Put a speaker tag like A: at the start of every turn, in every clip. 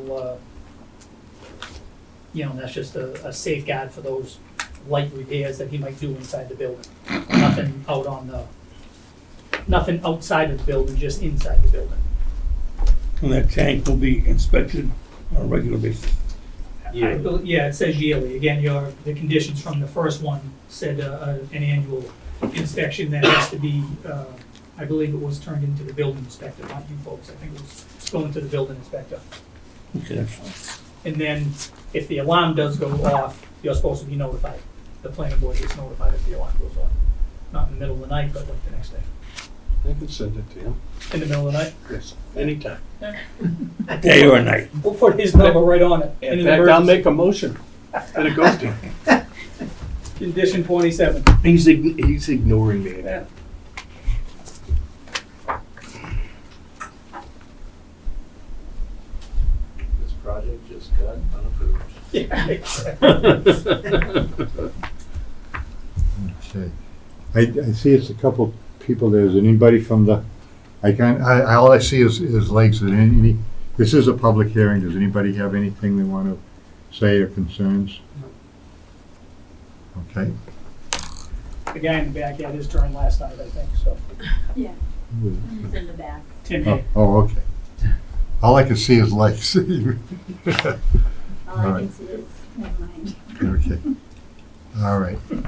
A: little, uh, you know, that's just a, a safeguard for those light repairs that he might do inside the building. Nothing out on the, nothing outside of the building, just inside the building.
B: And that tank will be inspected on a regular basis.
A: I bel- Yeah, it says yearly. Again, your, the conditions from the first one said uh, uh, an annual inspection that has to be, uh, I believe it was turned into the building inspector, not you folks. I think it was going to the building inspector.
B: Okay, that's fine.
A: And then if the alarm does go off, you're supposed to be notified. The planning board gets notified if the alarm goes off. Not in the middle of the night, but like the next day.
C: I could send it to him,
A: In the middle of the night,
C: yes, anytime.
B: Day or night.
A: we'll put his number right on it.
C: In
A: an
C: fact, I'll
A: emergency.
C: make a motion that it goes to him.
A: Condition twenty-seven.
D: He's, ign- he's ignoring me.
A: Yeah.
E: This project just got unapproved.
F: Okay. I, I see it's a couple people there. Is anybody from the, I can't, I, I- all I see is, is legs. Is any, this is a public hearing. Does anybody have anything they want to say or concerns? Okay,
A: The guy in the back had his turn last night, I think, so.
G: Yeah, it's in the back.
A: Tim,
F: oh, oh, okay. All I can see is legs. Okay,
G: All I can
F: Alright.
G: see is, never mind.
F: all right.
A: you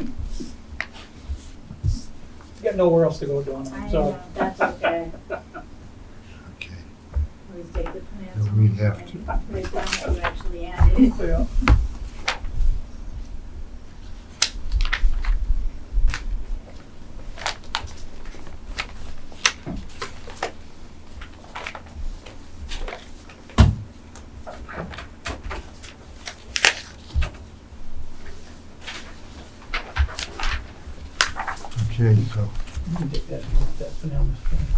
A: got nowhere else to go, Donna,
G: I
A: I'm sorry.
G: know, that's okay.
F: Okay.
G: Always take the plans.
F: No, we
G: home
F: have
G: and
F: to.
G: Write down what you actually added.
A: Yeah.
F: Okay, so,
A: You can take that, that for now, Mr. Chairman.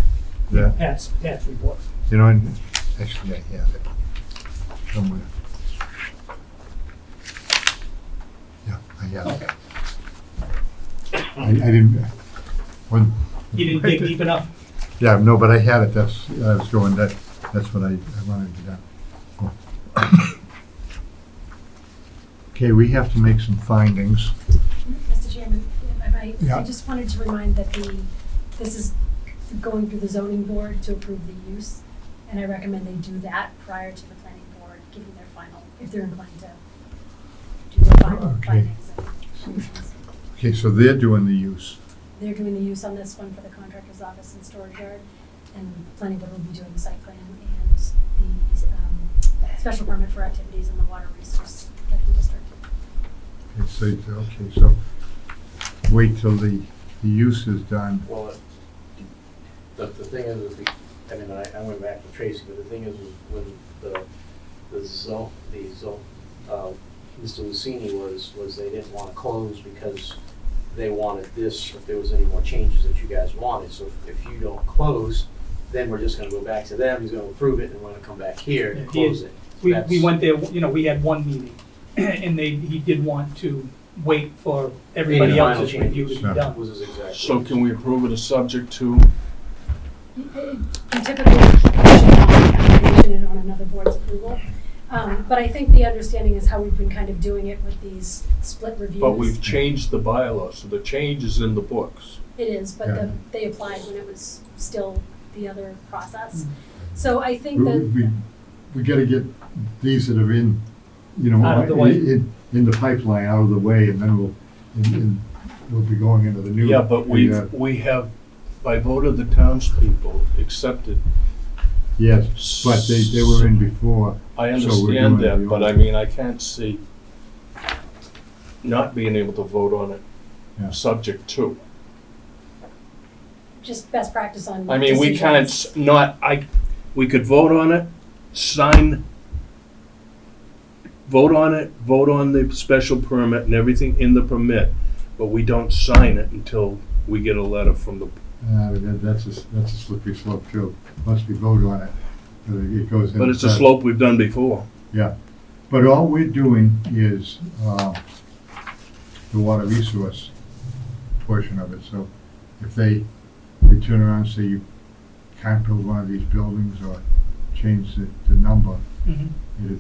F: yeah,
A: Pat's, Pat's report.
F: you know, and actually I have it somewhere. Yeah, I have it.
A: Okay.
F: I, I didn't, when.
A: You didn't dig deep enough?
F: Yeah, no, but I had it, that's, I was going, that, that's what I, I wanted to do. Okay, we have to make some findings.
H: Mr. Chairman, if I might,
F: Yeah.
H: I just wanted to remind that the, this is going through the zoning board to approve the use, and I recommend they do that prior to the planning board giving their final, if they're inclined to do their final
F: Okay.
H: findings and conclusions.
F: Okay, so they're doing the use.
H: They're doing the use on this one for the contractor's office and storage yard, and the planning board will be doing the site plan and the, um, special permit for activities in the water resource protection district.
F: Okay, so, okay, so wait till the, the use is done.
E: Well, it- the, the thing is, is the- I mean, I, I went back to Tracy, but the thing is, is when the, the zone, the zone, uh, Mr. Lucini was, was they didn't wanna close because they wanted this, if there was any more changes that you guys wanted, so if- if you don't close, then we're just gonna go back to them, he's gonna approve it, and we're gonna come back here
A: Yeah,
E: and
A: he-
E: close it.
A: We, we
E: That's-
A: went there, you know, we had one meeting, and they, he did want to wait for everybody
E: Any final
A: else's review to be
F: changes?
A: done.
E: Was his exact.
C: So
E: words.
C: can we approve it as subject to,
H: You typically should not application in on another board's approval. Um, But I think the understanding is how we've been kind of doing it with these split reviews.
C: but we've changed the bylaw, so the change is in the books.
H: It is, but
F: Yeah.
H: the- they applied when it was still the other process.
A: Mm.
H: So I think
F: We, we,
H: that,
F: we gotta get these that are in, you know,
A: Out of the way.
F: in, in- in the pipeline, out of the way, and then we'll, and, and we'll be going into the new.
C: Yeah, but
F: the, uh,
C: we've, we have, by vote of the townspeople, accepted.
F: Yes, but they, they were in before.
C: I
F: So we're
C: understand
F: doing
C: that,
F: the
C: but I
F: old-
C: mean, I can't see not being able to vote on
F: Yeah.
C: it, subject to.
H: just best practice on.
C: I mean, we
H: decisions.
C: can't s- not, I, we could vote on it, sign, vote on it, vote on the special permit and everything in the permit, but we don't sign it until we get a letter from the,
F: Uh, that, that's a, s- that's a slippery slope too. Once we vote on it, uh, it goes. in
C: but it's a
F: effect.
C: slope we've done before.
F: Yeah, but all we're doing is, uh, the water resource portion of it, so if they, they turn around and say you can't build one of these buildings or change the, the number,
I: Mhm.
A: It is